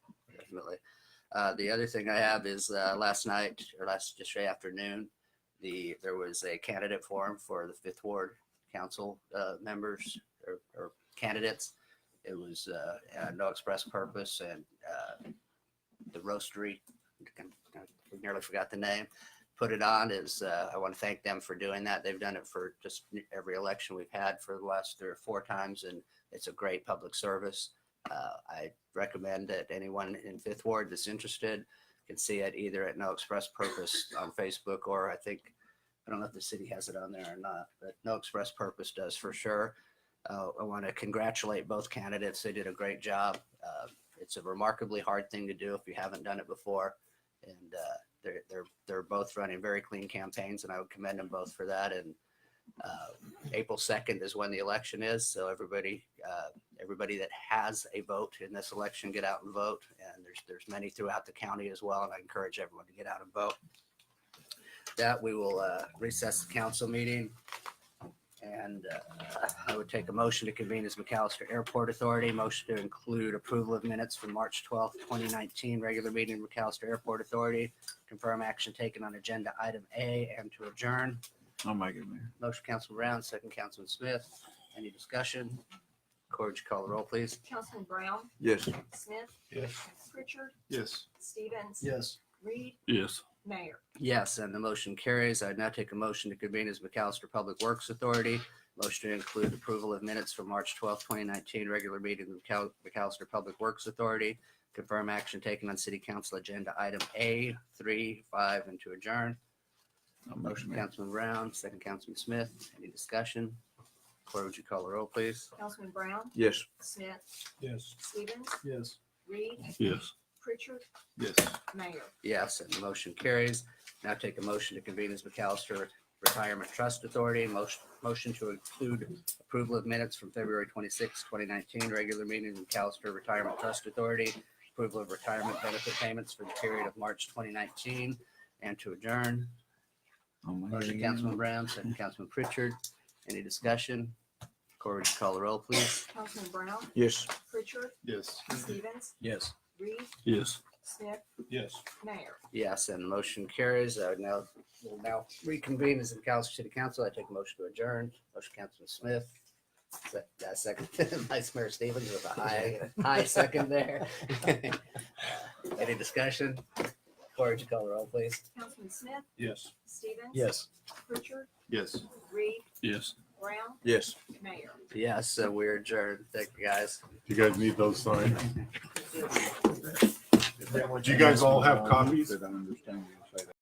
definitely. Uh, the other thing I have is uh, last night or last just yesterday afternoon, the there was a candidate forum for the fifth ward council uh, members or, or candidates. It was uh, uh, no express purpose and uh, the roastery. I nearly forgot the name. Put it on is uh, I want to thank them for doing that. They've done it for just every election we've had for the last three or four times, and it's a great public service. Uh, I recommend that anyone in Fifth Ward that's interested can see it either at No Express Purpose on Facebook or I think, I don't know if the city has it on there or not, but No Express Purpose does for sure. Uh, I want to congratulate both candidates. They did a great job. Uh, it's a remarkably hard thing to do if you haven't done it before. And uh, they're, they're, they're both running very clean campaigns and I would commend them both for that. And uh, April 2nd is when the election is. So everybody, uh, everybody that has a vote in this election get out and vote and there's there's many throughout the county as well and i encourage everyone to get out and vote that we will uh, recess the council meeting and uh, i would take a motion to convene as mcallister airport authority motion to include approval of minutes from march 12th 2019 regular meeting of mcallister airport authority confirm action taken on agenda item a and to adjourn I'll make it, Mayor. motion council brown second councilman smith any discussion corge call the roll please Councilman Brown, Yes. Smith, Yes. Pritchard, Yes. Stevens, Yes. Reed, Yes. Mayor. Yes, and the motion carries. I now take a motion to convene as McAllister Public Works Authority. Motion to include approval of minutes from March twelfth, twenty nineteen, regular meeting of Cal- McAllister Public Works Authority. Confirm action taken on city council agenda item A, three, five, and to adjourn. I'll motion, Mayor. Councilman Brown, second Councilman Smith, any discussion? Cora, would you call the roll, please? Councilman Brown, Yes. Smith, Yes. Stevens, Yes. Reed, Yes. Pritchard, Yes. Mayor. Yes, and the motion carries. Now take a motion to convene as McAllister Retirement Trust Authority. Motion, motion to include approval of minutes from February 26, 2019, regular meeting of McAllister Retirement Trust Authority. Approval of retirement benefit payments for the period of March 2019 and to adjourn. I'll make it Motion, again. Councilman Brown, second Councilman Pritchard. Any discussion? Corr, would you call the roll, please? Councilman Brown, Yes. Pritchard, Yes. Stevens, Yes. Reed, Yes. Smith, Yes. Mayor. Yes, and the motion carries. I would now, will now reconvene as the Council City Council. I take a motion to adjourn. Motion, Councilman Smith. Se- uh, Second, Vice Mayor Stevens with a high, high second there. Any discussion? Corriged you call the roll, please? Councilman Smith, Yes. Stevens. Yes. Pritchard, Yes. Reed, Yes. Brown, Yes. Mayor. Yes, so we're adjourned. Thank you, guys. You guys need those signed? Do you guys all have copies? That I understand you say that.